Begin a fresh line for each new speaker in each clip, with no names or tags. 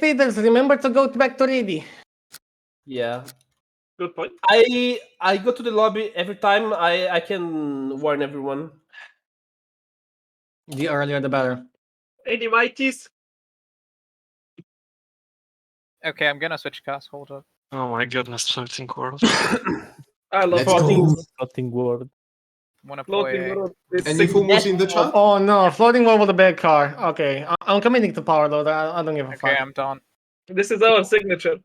traders, remember to go back to Reedy.
Yeah.
Good point.
I I go to the lobby every time. I I can warn everyone.
The earlier the better.
Any mighties?
Okay, I'm gonna switch cast. Hold up.
Oh my goodness, floating world.
I love
Let's
floating.
go.
Nothing world.
Wanna play?
Floating world. It's
Any
Sifu
who's in the
Oh,
chat?
oh, no, floating over the bad car. Okay, I- I'm committing to power loader. I, I don't give a
Okay,
fuck.
I'm done.
This is our signature.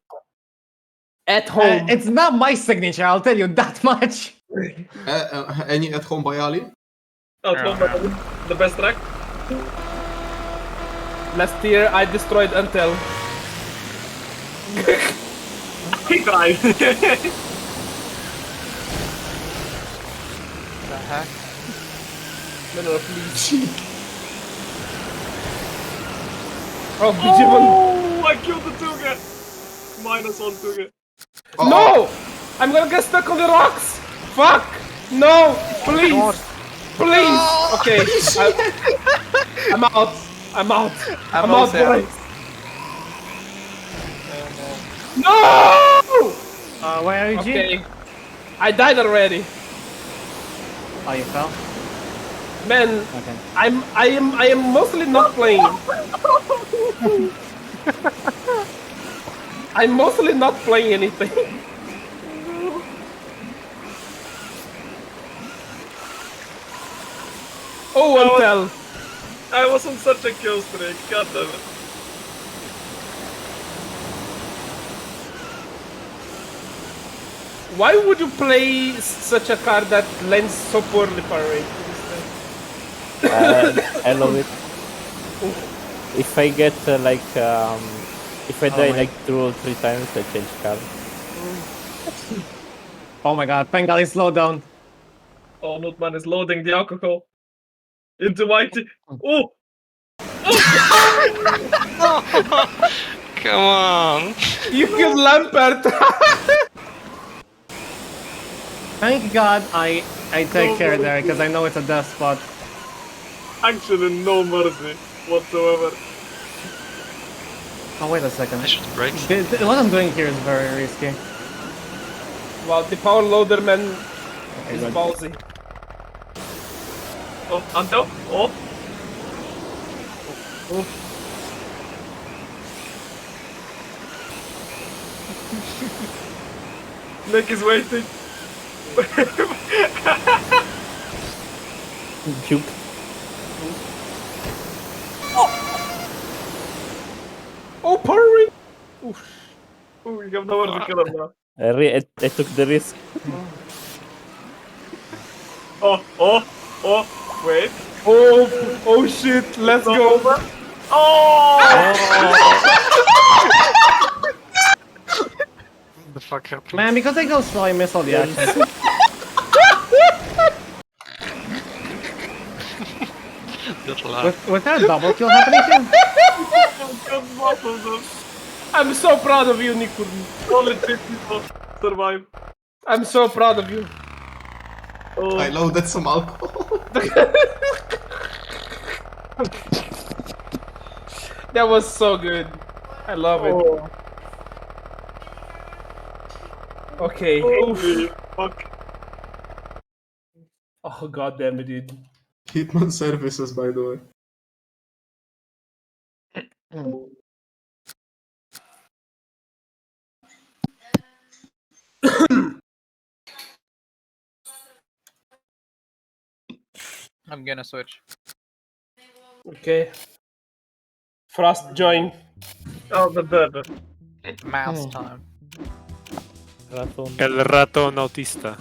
At
Uh,
home.
it's not my signature, I'll tell you that much.
Uh, uh, any at home by Ali?
Oh,
Yeah.
no, but the best track.
Last year I destroyed Untel.
Hey guys.
The heck?
No, no, please. oh, Digimon.
oh, I killed the Tuga. Minus one Tuga.
Oh,
No! I'm gonna get stuck on the rocks! Fuck! No! Please! Please! Okay, I, I'm out. I'm out. I'm, out,
also out.
boys. Oh, No!
Uh, where are you, G?
Okay. I died already.
Oh, you fell?
Man,
Okay.
I'm I am I am mostly not playing. I'm mostly not playing anything. Oh, Antel.
I was on such a kill streak. God damn it.
Why would you play s- such a card that lands so poorly far away?
And Uh, I love it. If I get uh, like um, if I die like two or three times, I change card.
Oh my god, Pengali, slow down.
Oh, Nutman is loading the alcohol into my tea. Oh,
Come on!
You can Lampert.
Thank god I I take care there, because I know it's a death spot.
actually, no mercy whatsoever.
Oh, wait a second.
I should break.
Th- th- What I'm doing here is very risky.
well, the power loader man is
God.
ballsy.
Oh, Anto. Oh, oh. Nick is waiting.
Juke.
Oh, power ring.
Oh, we have nowhere to kill him now.
I, re- I, I took the risk.
Oh, oh, oh. Wait.
Oh, oh shit. Let's go.
Oh!
What the fuck happened?
Man, because I go slow, I miss all the actions.
That laugh.
With, with that double kill happening here?
Good both of them.
I'm so proud of you, Nikun.
Only three people survive.
I'm so proud of you.
Oh,
I loaded some alcohol.
That was so good. I love it.
oh,
Okay.
Oh. holy fuck.
Oh god damn it, dude.
Hitman services, by the way.
I'm gonna switch.
Okay. Frost join.
Oh, the dead.
Mouse time.
Raton.
El ratón autista.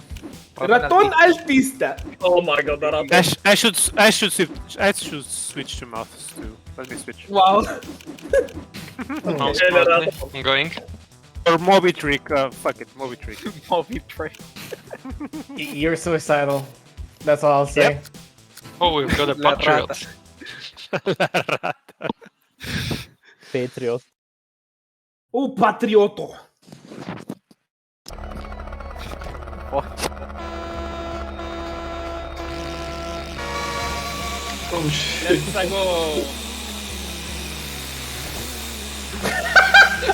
Raton Altista.
Oh my god, that happened.
I, sh- I should s- I should switch I should switch to mouths too. Let me switch.
Wow.
Mouse
Yeah, yeah,
smartly.
that-
I'm going.
Or Moby Trick. Uh, fuck it, Moby Trick.
Moby Trick.
Y- You're suicidal. That's all I'll say.
Oh, we've got a
La
patriot.
Patriot.
Oh, patrioto.
Oh shit.
Let's go.